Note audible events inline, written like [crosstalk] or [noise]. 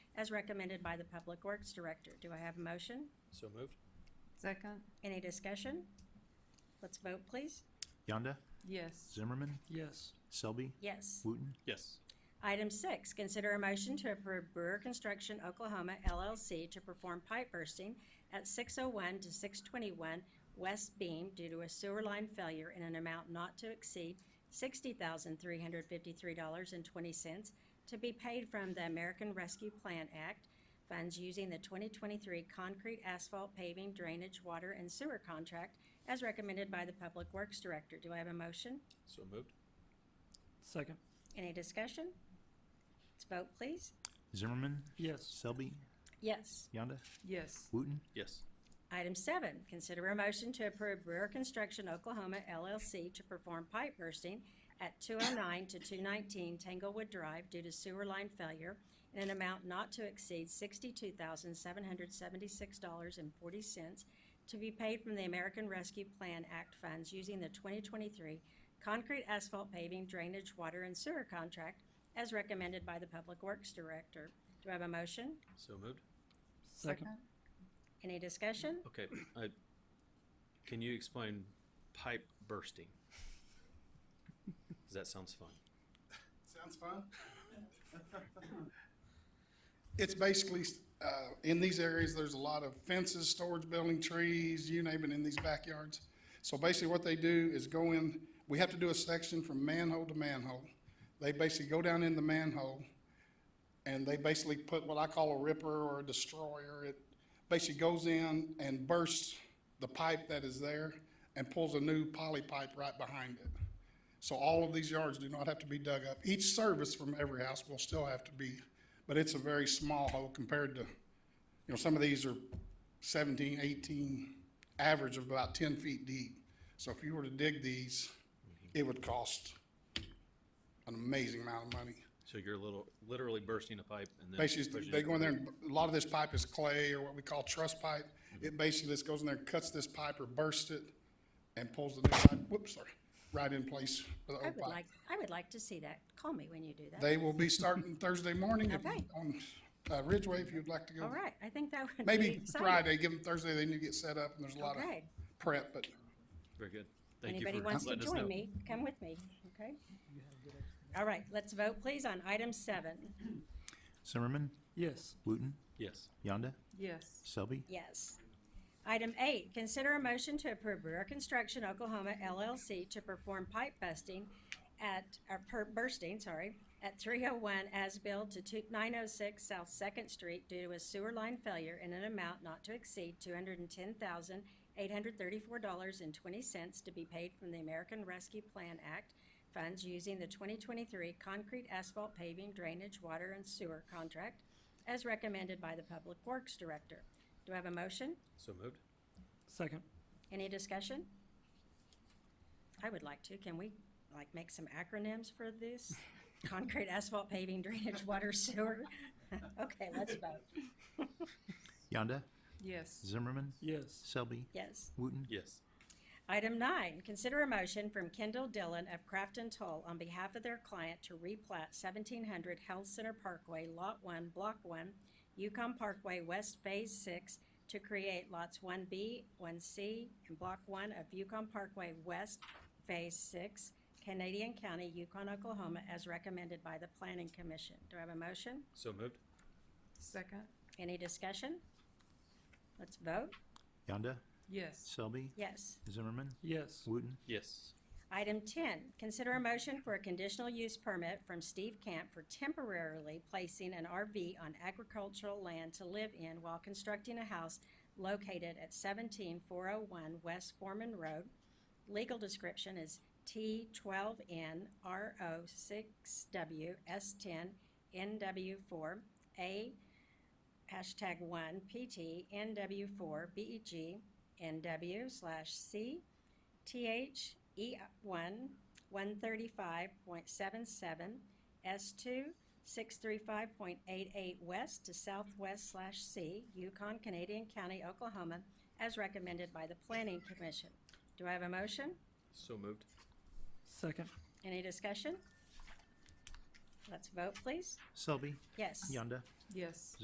as recommended by the Public Works Director. Do I have a motion? So moved? Second? Any discussion? Let's vote, please. Yonda, Yes. Zimmerman, Yes. Selby, Yes. Wooten, Yes. Item six, consider a motion to approve Brewer Construction Oklahoma LLC to perform pipe bursting at six oh one to six twenty-one West Beam due to a sewer line failure in an amount not to exceed sixty thousand three hundred fifty-three dollars and twenty cents to be paid from the American Rescue Plan Act funds using the twenty twenty-three concrete asphalt paving drainage water and sewer contract as recommended by the Public Works Director. Do I have a motion? So moved? Second. Any discussion? Let's vote, please. Zimmerman, Yes. Selby, Yes. Yonda, Yes. Wooten, Yes. Item seven, consider a motion to approve Brewer Construction Oklahoma LLC to perform pipe bursting at two oh nine to two nineteen Tanglewood Drive due to sewer line failure in an amount not to exceed sixty-two thousand seven hundred seventy-six dollars and forty cents to be paid from the American Rescue Plan Act funds using the twenty twenty-three concrete asphalt paving drainage water and sewer contract as recommended by the Public Works Director. Do I have a motion? So moved? Second. Any discussion? Okay, I, can you explain pipe bursting? 'Cause that sounds fun. Sounds fun. It's basically, uh, in these areas, there's a lot of fences, storage building, trees, you name it, in these backyards. So basically what they do is go in, we have to do a section from manhole to manhole. They basically go down in the manhole and they basically put what I call a ripper or a destroyer. It basically goes in and bursts the pipe that is there and pulls a new poly pipe right behind it. So all of these yards do not have to be dug up. Each service from every house will still have to be, but it's a very small hole compared to, you know, some of these are 17, 18, average of about ten feet deep. So if you were to dig these, it would cost an amazing amount of money. So you're little, literally bursting a pipe and then. Basically, pushing they it go in there and, a lot of this pipe is clay or what we call truss pipe. It basically just goes in there, and cuts this pipe or bursts it and pulls the new pipe, whoops, sorry, right in place with the I old would pipe. like, I would like to see that. Call me when you do that. They will be starting Thursday morning if- Okay. on uh, Ridgeway if you'd like to go. All right, I think that would be Maybe exciting. Friday, give them Thursday, they need to get set up and there's a lot of Okay. prep, but Very good. Thank you for Anybody letting wants us know. to join me, come with me, okay? All right, let's vote please on item seven. Zimmerman, Yes. Wooten, Yes. Yonda, Yes. Selby, Yes. Item eight, consider a motion to approve Brewer Construction Oklahoma LLC to perform pipe busting at, or per, bursting, sorry, at three oh one Asbill to two, nine oh six South Second Street due to a sewer line failure in an amount not to exceed two hundred and ten thousand eight hundred thirty-four dollars and twenty cents to be paid from the American Rescue Plan Act funds using the twenty twenty-three concrete asphalt paving drainage water and sewer contract as recommended by the Public Works Director. Do I have a motion? So moved? Second. Any discussion? I would like to. Can we, like, make some acronyms for this? Concrete, asphalt, paving, drainage, water, sewer? [laughs] Okay, let's vote. Yonda, Yes. Zimmerman, Yes. Selby, Yes. Wooten, Yes. Item nine, consider a motion from Kendall Dillon of Craft and Toll on behalf of their client to replat seventeen hundred Health Center Parkway, Lot One, Block One, Yukon Parkway West Phase Six to create lots one B, one C, and Block One of Yukon Parkway West Phase Six, Canadian County, Yukon, Oklahoma, as recommended by the Planning Commission. Do I have a motion? So moved? Second? Any discussion? Let's vote. Yonda, Yes. Selby, Yes. Zimmerman, Yes. Wooten, Yes. Item ten, consider a motion for a conditional use permit from Steve Camp for temporarily placing an RV on agricultural land to live in while constructing a house located at seventeen four oh one West Foreman Road. Legal description is T twelve N R O six W S ten N W four A hashtag one PT N W four B E G N W slash C TH E one, one thirty-five point seven seven, S two, six three five point eight eight west to southwest slash C, Yukon, Canadian County, Oklahoma, as recommended by the Planning Commission. Do I have a motion? So moved? Second. Any discussion? Let's vote, please. Selby, Yes. Yonda, Yes.